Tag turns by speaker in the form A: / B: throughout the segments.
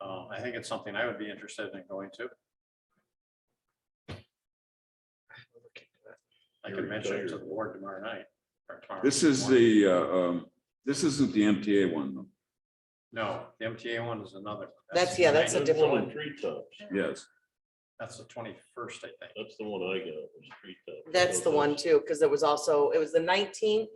A: Um, I think it's something I would be interested in going to. I can mention it to the board tomorrow night. or tomorrow
B: This is
A: morning.
B: the, uh, um, this isn't the MTA one, though.
A: No, the MTA one is another.
C: That's- yeah, that's a
A: tonight.
C: diff- different
D: on
C: one.
D: Treetops.
B: yes.
A: That's the twenty-first, I think.
D: That's the one I got, was treetops.
C: That's the one too, because it was also, it was the nineteenth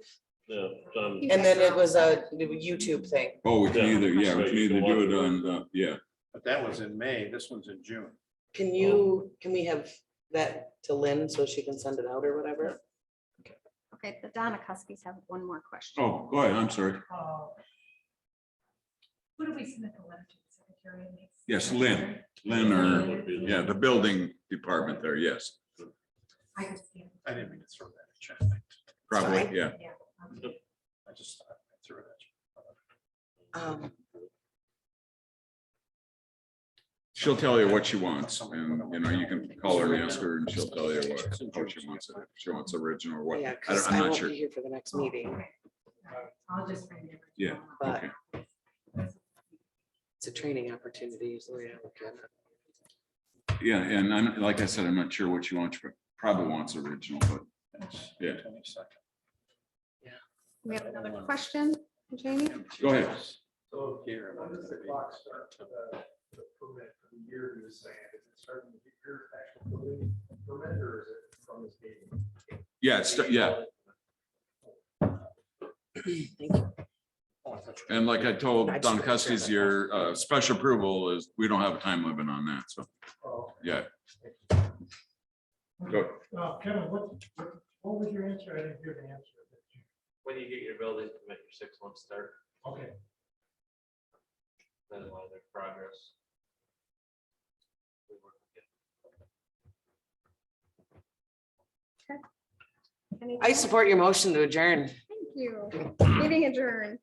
D: Yeah. John-
C: and then it was a YouTube thing.
B: Oh, we can
D: Yeah.
B: either, yeah, we
D: Right,
B: can
D: you
B: either
D: can
B: do
D: watch
B: it
D: it.
B: on, uh, yeah,
A: But that was in May. This one's in June.
B: Oh.
C: Can you, can we have that to Lynn so she can send it out or whatever?
E: Okay, the Donakowski's have one more question.
B: oh, go ahead, I'm sorry,
F: Oh. Who do we submit the letter to the secretary? and it's-
B: Yes, Lynn. Lynn or,
D: would be the-
B: yeah, the building department there, yes,
F: I just can't-
A: I didn't mean to throw that at you.
B: probably,
C: Sorry?
B: yeah.
F: Yeah. um,
A: I just I threw it at you.
C: Um,
B: She'll tell you what she wants, and, you know, you can call her and ask her, and she'll tell you what, how she wants it, if she wants original or what, I
C: yeah, because
B: don't,
C: I
B: I'm not
C: won't
B: sure, Oh.
C: be here for the next meeting,
F: okay, all right, I'll just bring it.
B: Yeah,
C: but
B: okay.
C: it's a training opportunity. is the way I look at it.
B: yeah, and I'm, like I said, I'm not sure what she wants, but probably wants original, but Yeah.
A: Twenty-second.
E: We have another question, Jamie?
B: Go ahead.
G: So
A: Here.
G: when does the clock start for the, the permit for the year you were saying? Is it starting with your actual building permit or is it from this meeting?
B: yeah, it's, yeah,
C: Thank you.
B: and like I told
C: I just-
B: Don Custis, your, uh, special approval is, we don't have a time limit on that, so,
G: Oh,
B: yeah.
G: okay.
B: Go,
G: Uh, Kevin, what, what- what was your answer? I didn't hear the answer.
H: When you get your building permit, your six month start,
G: Okay.
H: that is why there's progress. We work with it.
E: Anything?
C: I support your motion to adjourn.
E: Thank you. Meeting adjourned.